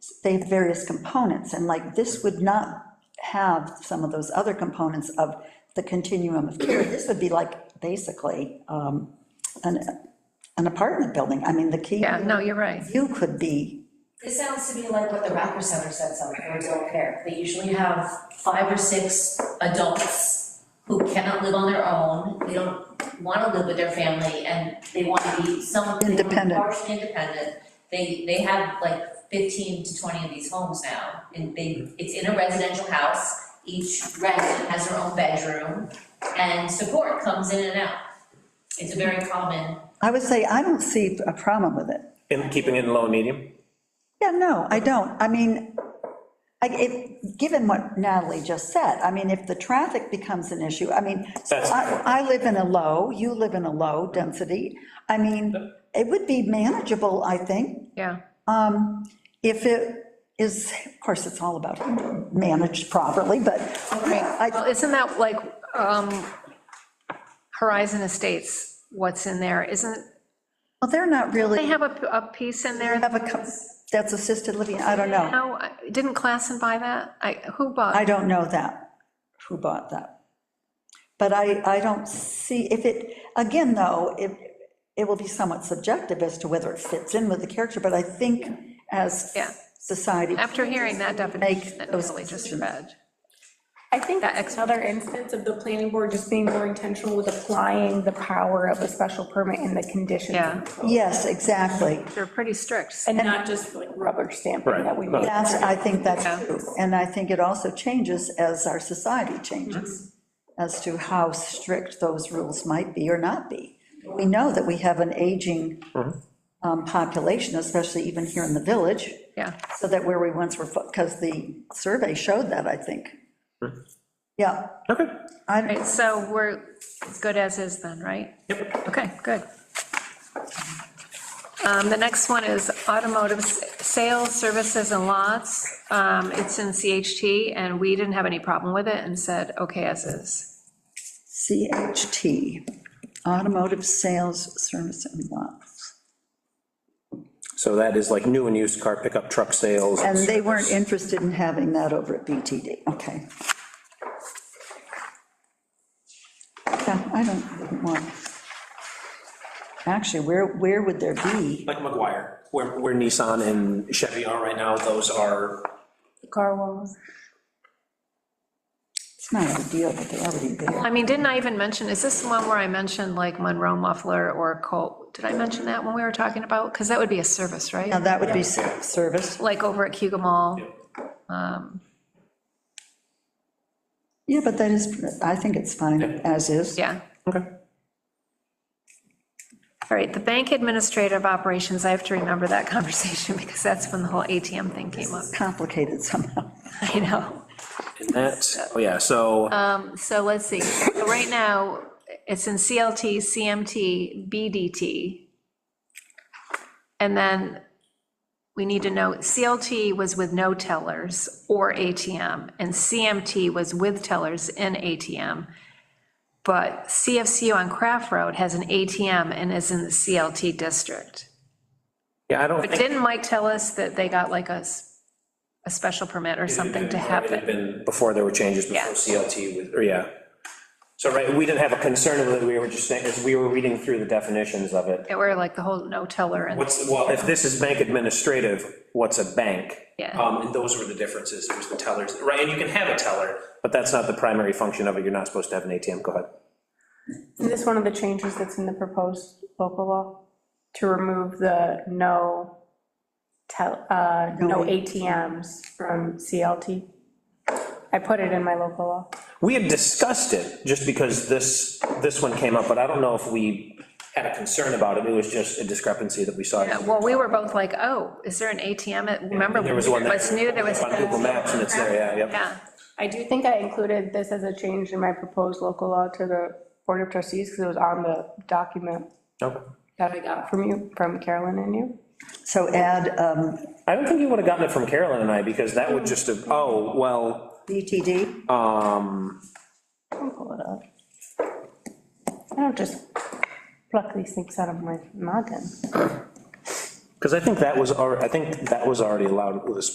they have various components, and like, this would not have some of those other components of the continuum of care. This would be like, basically, um, an, an apartment building. I mean, the key. Yeah, no, you're right. You could be, This sounds to me like what the Rocker Center sets up for adult care. They usually have five or six adults who cannot live on their own, they don't wanna live with their family, and they wanna be some. they wanna be Independent. Partially independent. They, they have like fifteen to twenty of these homes now, and they, it's in a residential house. Each resident has their own bedroom, and support comes in and out. It's a very common, I would say, I don't see a problem with it. In keeping it in low and medium? Yeah, no, I don't. I mean, I, it, given what Natalie just said, I mean, if the traffic becomes an issue, I mean, so That's- I, I live in a low, you live in a low density. I mean, it would be manageable, I think, Yeah, if it is, of course, it's all about managed properly, but well, I, isn't that like, um, Horizon Estates, what's in there, isn't, well, they're not they really, have a, a piece in there? have a, co- that's assisted living, I don't know. No, I- didn't Klassen buy that? I, who bought? I don't know that, who bought that. But I, I don't see, if it, again, though, it, it will be somewhat subjective as to whether it fits in with the character, but I think as Yeah. society. After hearing that definition that those Natalie just decisions. read. I think That that's another instance of the planning board just being more intentional with applying the power of a special permit and the conditions. Yeah. Yes, exactly. They're pretty strict. And not just like rubber stamping that we. Right, no. That's, I think that's Yeah. true. And I think it also changes as our society changes, as to how strict those rules might be or not be. We know that we have an aging um, population, especially even here in the village. Yeah. So that where we once were, because the survey showed that, I think. Yeah, Okay. I, Right, so we're as good as is then, right? Yep. Okay, good. Um, The next one is automotive s- sales, services, and lots. Um, It's in CHT, and we didn't have any problem with it and said, okay, as is. CHT, automotive sales, service and lots. So that is like new and used car pickup truck sales. And they weren't interested in having that over at BTD, okay. Yeah, I don't, wouldn't want. Actually, where, where would there be? Like McGuire, where where Nissan and Chevy are right now, those are, Car walls. It's not a big deal, but they're already there. I mean, didn't I even mention, is this the one where I mentioned like Monroe Muffler or Colt? Did I mention that when we were talking about? Because that would be a service, right? Now, that would be s- service. Like over at Cuba Mall. Yeah, but that is, I think it's fine as is. Yeah. okay. All right, the bank administrative operations, I have to remember that conversation because that's when the whole ATM thing came up. Complicated somehow. I know. And that, oh yeah, so, Um, So let's see. So Right now, it's in CLT, CMT, BDT. And then we need to know, CLT was with no tellers or ATM, and CMT was with tellers and ATM. But CFCU on Craft Road has an ATM and is in the CLT district. yeah, I don't But think. didn't Mike tell us that they got like a, s- a special permit or something to It had happen? been before there were changes, before Yeah. CLT, was- or yeah. So, right, we didn't have a concern with it, we were just saying, as we were reading through the definitions of it. That were like the whole no teller and, What's, well, if this is bank administrative, what's a bank? Yeah. Um, and those were the differences, it was the tellers, right, and you can have a teller, but that's not the primary function of it, you're not supposed to have an ATM, go ahead. Is this one of the changes that's in the proposed local law? To remove the no tel, uh, no ATMs from CLT? I put it in my local law. We had discussed it, just because this, this one came up, but I don't know if we had a concern about it, it was just a discrepancy that we saw. Yeah, well, we were both like, oh, is there an ATM? at-" Remember, There was one that. what's new, there was, On Google Maps, and it's there, yeah, yep. yeah, I do think I included this as a change in my proposed local law to the Board of Trustees, because it was on the document Okay. that I got from you, from Carolyn and you. So add um, I don't think you would have gotten it from Carolyn and I, because that Mm. would just have, oh, well, BTD, I'll pull it up. I don't just pluck these things out of my noggin. because I think that was, alre- I think that was already allowed with a